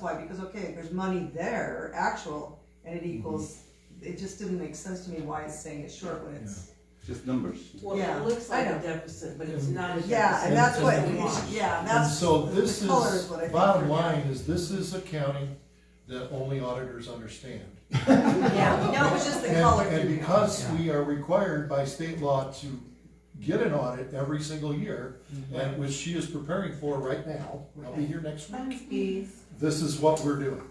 why, because okay, there's money there, actual, and Mm-hmm. it equals, it just didn't make sense to me why it's saying it's short when it's, just numbers. Well, Yeah, it looks like I a know. deficit, but Mm. it's not a deficit. yeah, and that's what, It's just a wash. yeah, and And that's, so this the color is is, what I think. bottom we're getting. line is, this is accounting that only auditors understand. Yeah, no, it was just the And- color. And threw me off. because we are required by state law to get an audit every single year, Mm-hmm. and which she is preparing for right now, I'll be here next week, Thanks, bees. this is what we're doing.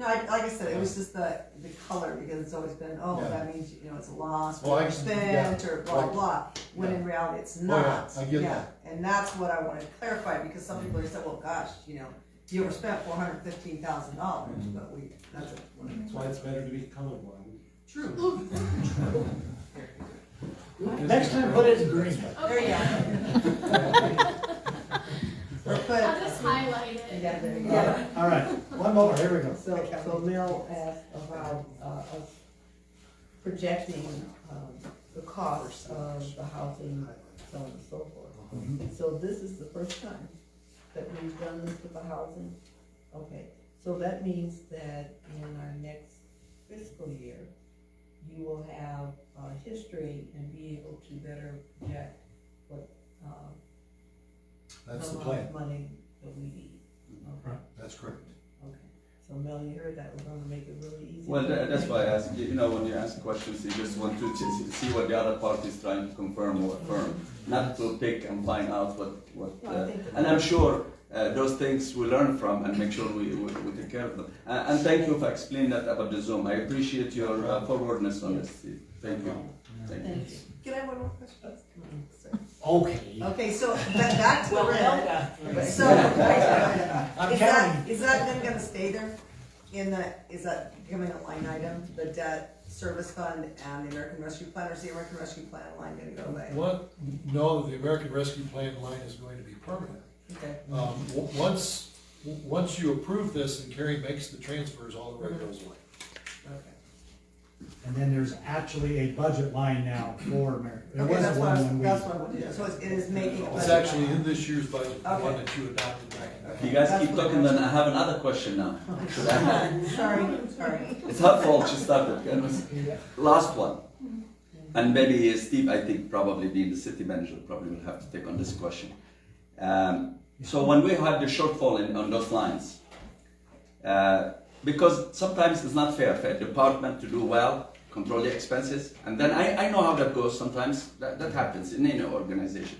No, I, like I said, it was just the, the color, because it's always been, oh, Yeah. that means, you know, it's a loss, Well, I- or spent, or blah, right. blah, when in reality, it's not. Oh, I get Yeah, that. Mm-hmm. And that's what I wanted to clarify, because some people are saying, well, gosh, you know, you overspent four hundred fifteen thousand dollars, Mm-hmm. but we, that's what That's why it's better to be colorblind. True. Next time, put it in green. There you go. I'll But, just highlight it. Yeah, there you go. Yeah, all right, one more, here we go. So, so Mel asked about, uh, us projecting, um, the cost of the housing, so on and so Mm-hmm. forth. So this is the first time that we've done this with the housing? Okay, so that means that in our next fiscal year, you will have, uh, history and be able to better project what, um, That's the amount of plan, Money that we need, okay? that's correct. Okay, so Mel, you heard that, we're gonna make it really easy. Well, for tha- you. that's why I ask, you know, when you ask questions, you just want to ch- see what the other party is trying to confirm or affirm, not to pick and find out what, what, No, I uh, think- and I'm sure uh, those things we learn from and make sure we, we, we take care of them. Uh, and thank you for explaining that about the Zoom. I appreciate your uh, forwardness on this. Steve. Thank you. Thank you. Thank you. can I have one more question? Okay, Okay, so, ba- back to the Well, Mel red, got three. so, wait, wait, wait. I'm Is counting. that, is that then gonna stay there in the, is that becoming a line item, the debt service fund and the American Rescue Plan, or is the American Rescue Plan line gonna go away? What, no, the American Rescue Plan line is going to be permanent. Okay, Um, w- once, w- once you approve this and Carrie makes the transfers, all the rest goes away. okay. and then there's actually a budget line now for America. There Okay, was that's what I one was, when we. that's what I wanted, so it's- it is making. a It's budget actually line. in this year's budget, the one Okay. that you adopted back in You guys That's keep what I talking, then asked. I have another question now. Sorry, sorry. It's her fault she started. Can we- Last one. And maybe uh, Steve, I think probably being the city manager, probably will have to take on this question. Um, so when we had the shortfall in, on those lines, uh, because sometimes it's not fair for a department to do well, control the expenses, and then I, I know how that goes sometimes. That, that happens in any organization.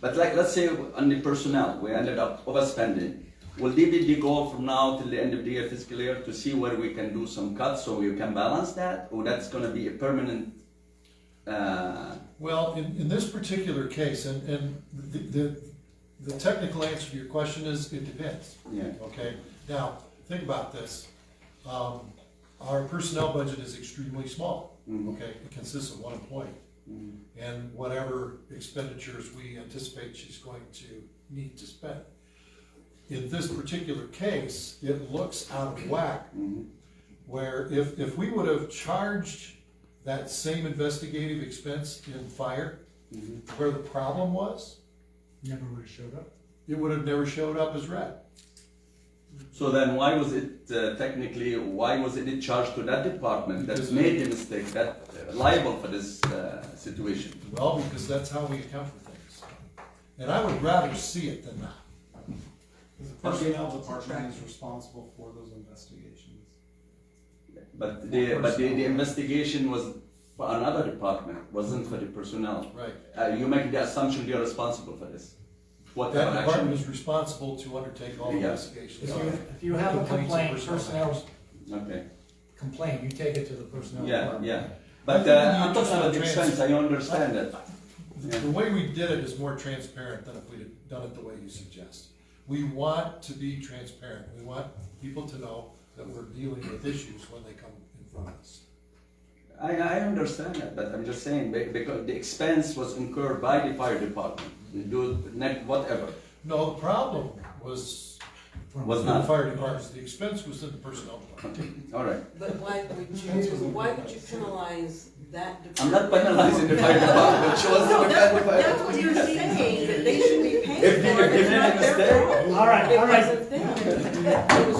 But like let's say on the personnel, we ended up overspending. Will there be the goal from now till the end of the year fiscal year to see where we can do some cuts so we can balance that, or that's going to be a permanent? Uh, Well, in, in this particular case, and, and the, the, the technical answer to your question is, it depends, yeah. okay? Now, think about this. Um, our personnel budget is extremely small, Mhm. okay? It consists of one employee. And whatever expenditures we anticipate she's going to need to spend. In this particular case, it looks out of whack Mhm. where if, if we would have charged that same investigative expense in fire, Mhm. where the problem was, Never would have showed up. it would have never showed up as red. So then, why was it uh, technically? Why was it charged to that department that Because- made the mistake, that uh, liable for this uh, situation? Well, because that's how we account for things. And I would rather see it than not. Because the personnel department is responsible for those investigations. But the but the, the investigation was for another department, wasn't for the personnel. Right. Uh, you make the assumption they are responsible for this. What That our department action? is responsible to undertake all Yeah. If investigations. you, if you have a complaint, Complaints of personnel. personnel Okay. complaint, you take it to the personnel Yeah, department. yeah. But think uh, you I'm talking just about the trans- expense. I understand that. The the way we did it is more transparent than if we had done it the way you suggest. We want to be transparent. We want people to know that we're dealing with issues when they come in front of us. I, I understand that, but I'm just saying be- because the expense was incurred by the fire department. They do net whatever. No, the problem was Was in the not. fire department. The expense was in the personnel department. Okay. All right. But why would you, why would you penalize that I'm department? not penalizing the fire department. She was No, the that's, fire that's what you're saying, that they should be paying If they- for it, if they it's made a not mistake. their fault. All right, all right. It wasn't them, it was